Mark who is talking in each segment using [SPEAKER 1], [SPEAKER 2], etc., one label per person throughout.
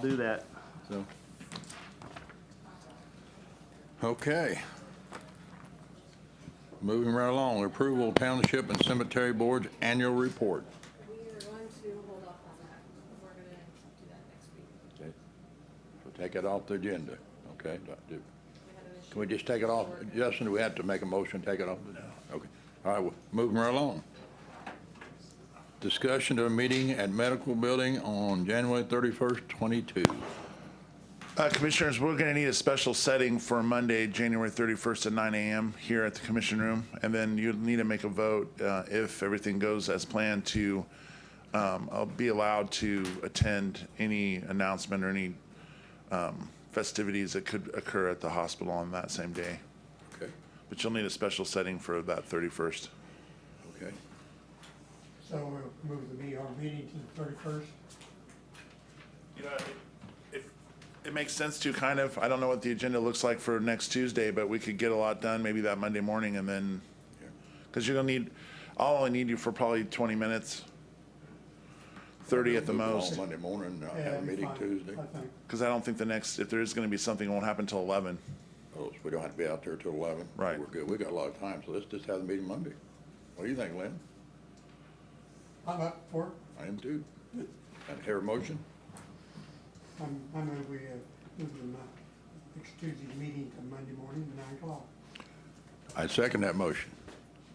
[SPEAKER 1] do that.
[SPEAKER 2] So. Okay. Moving right along, approval of Township and Cemetery Board's annual report.
[SPEAKER 3] We are going to hold off on that. We're gonna do that next week.
[SPEAKER 2] Okay. So Take it off the agenda, okay? Do- do-
[SPEAKER 3] We had an issue.
[SPEAKER 2] Can we just take it off? Justin, do we have to make a motion, to take it off? No. Okay. All right, well, moving right along. Discussion of a meeting at Medical Building on January 31st, 22.
[SPEAKER 4] Uh, Commissioners, we're going to need a special setting for Monday, January 31st at 9 a.m. here at the Commission Room. And then you'll need to make a vote uh, if everything goes as planned to, um, I'll be allowed to attend any announcement or any um, festivities that could occur at the hospital on that same day.
[SPEAKER 2] Okay,
[SPEAKER 4] But you'll need a special setting for that 31st.
[SPEAKER 2] okay.
[SPEAKER 5] So we'll move the meeting, our meeting to the thirty-first.
[SPEAKER 4] You know, it- it, it makes sense to kind of, I don't know what the agenda looks like for next Tuesday, but we could get a lot done maybe that Monday morning and then, because you're gonna need, I'll only need you for probably twenty minutes. Thirty at the
[SPEAKER 2] Move along
[SPEAKER 4] most,
[SPEAKER 2] Monday morning, I have a meeting Tuesday.
[SPEAKER 5] I think,
[SPEAKER 4] because I don't think the next, if there is gonna be something, it won't happen till eleven.
[SPEAKER 2] Oh, so we don't have to be out there till eleven?
[SPEAKER 4] Right.
[SPEAKER 2] We're good, we got a lot of time, so let's just have the meeting Monday. What do you think, Lynn?
[SPEAKER 5] I'm up for it.
[SPEAKER 2] I am too. And hear a motion?
[SPEAKER 5] I'm, I move we, uh, move the, mon- next Tuesday's meeting to Monday morning, nine o'clock.
[SPEAKER 2] I second that motion.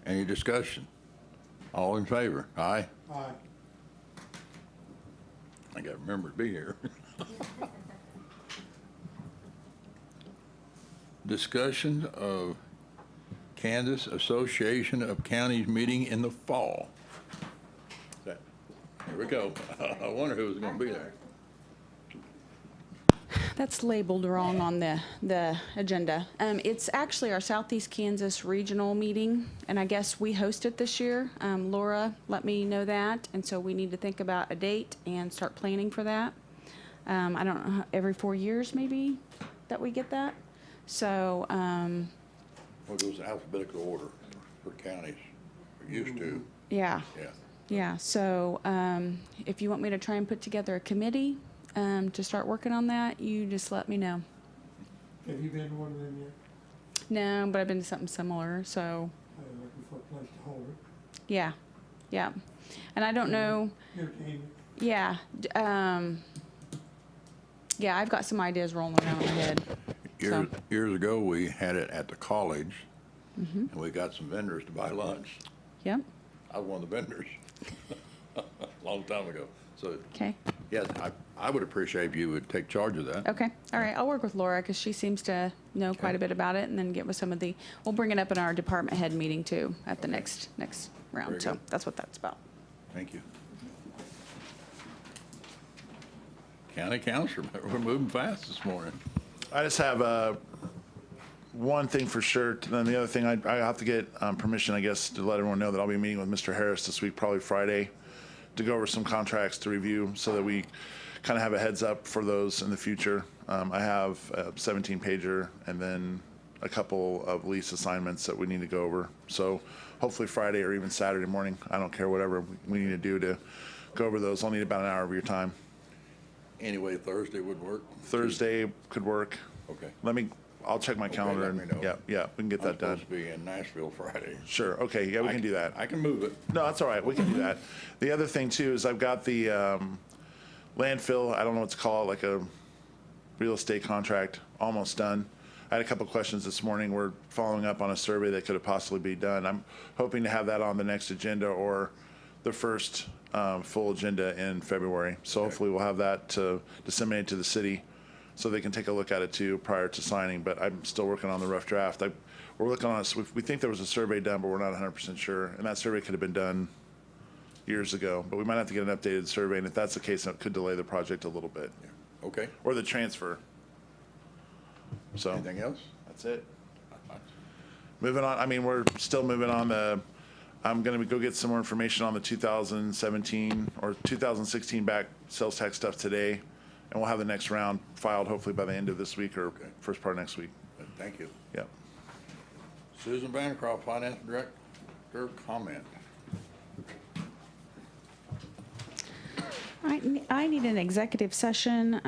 [SPEAKER 2] Any discussion? All in favor? Aye.
[SPEAKER 5] Aye.
[SPEAKER 2] I gotta remember to be here. Discussion of Kansas Association of Counties meeting in the fall. That- Here we go. I wonder who was gonna be there.
[SPEAKER 6] That's labeled wrong on the, the agenda. Um, it's actually our Southeast Kansas Regional Meeting, and I guess we host it this year. Um, Laura let me know that, and so we need to think about a date and start planning for that. Um, I don't know, how- every four years maybe that we get that? So, um,
[SPEAKER 2] Well, it goes in alphabetical order for counties, or used to,
[SPEAKER 6] yeah,
[SPEAKER 2] yeah.
[SPEAKER 6] yeah. So, um, if you want me to try and put together a committee, um, to start working on that, you just let me know.
[SPEAKER 5] Have you been to one of them yet?
[SPEAKER 6] No, but I've been to something similar, so.
[SPEAKER 5] I'm looking for a place to hold it.
[SPEAKER 6] Yeah, yeah. And I don't know,
[SPEAKER 5] Here, Tammy,
[SPEAKER 6] yeah, d- um, yeah, I've got some ideas rolling around in my head.
[SPEAKER 2] Years,
[SPEAKER 6] So-
[SPEAKER 2] years ago, we had it at the college,
[SPEAKER 6] Mm-hmm.
[SPEAKER 2] and we got some vendors to buy lunch.
[SPEAKER 6] Yep,
[SPEAKER 2] I was one of the vendors, long time ago. So,
[SPEAKER 6] okay,
[SPEAKER 2] yes, I, I would appreciate if you would take charge of that.
[SPEAKER 6] okay, all right, I'll work with Laura, because she seems to know quite
[SPEAKER 2] Okay.
[SPEAKER 6] a bit about it, and then get with some of the, we'll bring it up in our department head meeting too, at the next, next
[SPEAKER 2] Very
[SPEAKER 6] round, so
[SPEAKER 2] good.
[SPEAKER 6] that's what that's about.
[SPEAKER 2] Thank you. County council, we're moving fast this morning.
[SPEAKER 4] I just have uh, one thing for sure. And then the other thing, I, I have to get um, permission, I guess, to let everyone know that I'll be meeting with Mr. Harris this week, probably Friday, to go over some contracts to review so that we kind of have a heads up for those in the future. Um, I have a 17 pager and then a couple of lease assignments that we need to go over. So hopefully Friday or even Saturday morning, I don't care, whatever we need to do to go over those. I'll need about an hour of your time.
[SPEAKER 2] Anyway, Thursday would work.
[SPEAKER 4] Thursday could work.
[SPEAKER 2] Okay.
[SPEAKER 4] Let me, I'll check my
[SPEAKER 2] Okay,
[SPEAKER 4] calendar.
[SPEAKER 2] let
[SPEAKER 4] and
[SPEAKER 2] me know.
[SPEAKER 4] Yeah, yeah, we can get
[SPEAKER 2] I'm
[SPEAKER 4] that done.
[SPEAKER 2] supposed to be in Nashville Friday.
[SPEAKER 4] Sure, okay, yeah, we
[SPEAKER 2] I
[SPEAKER 4] can do that.
[SPEAKER 2] I can move it.
[SPEAKER 4] No, that's all right, we can do that. The other thing too is I've got the um, landfill, I don't know what to call it, like a real estate contract, almost done. I had a couple questions this morning. We're following up on a survey that could have possibly be done. I'm hoping to have that on the next agenda or the first um, full agenda in February. So hopefully we'll have that to disseminate to the city so they can take a look at it too prior to signing. But I'm still working on the rough draft. I, we're looking on, us. we we think there was a survey done, but we're not 100% sure. And that survey could have been done years ago, but we might have to get an updated survey. And if that's the case, it could delay the project a little bit
[SPEAKER 2] Okay.
[SPEAKER 4] or the transfer. So
[SPEAKER 2] Anything else?
[SPEAKER 4] that's it. Moving on, I mean, we're still moving on the, I'm gonna go get some more information on the 2017 or 2016 back sales tax stuff today. And we'll have the next round filed hopefully by the end of this week or first part of next week.
[SPEAKER 2] Thank you.
[SPEAKER 4] Yep.
[SPEAKER 2] Susan Bancroft, Finance Director, comment.
[SPEAKER 6] I, I need an executive session,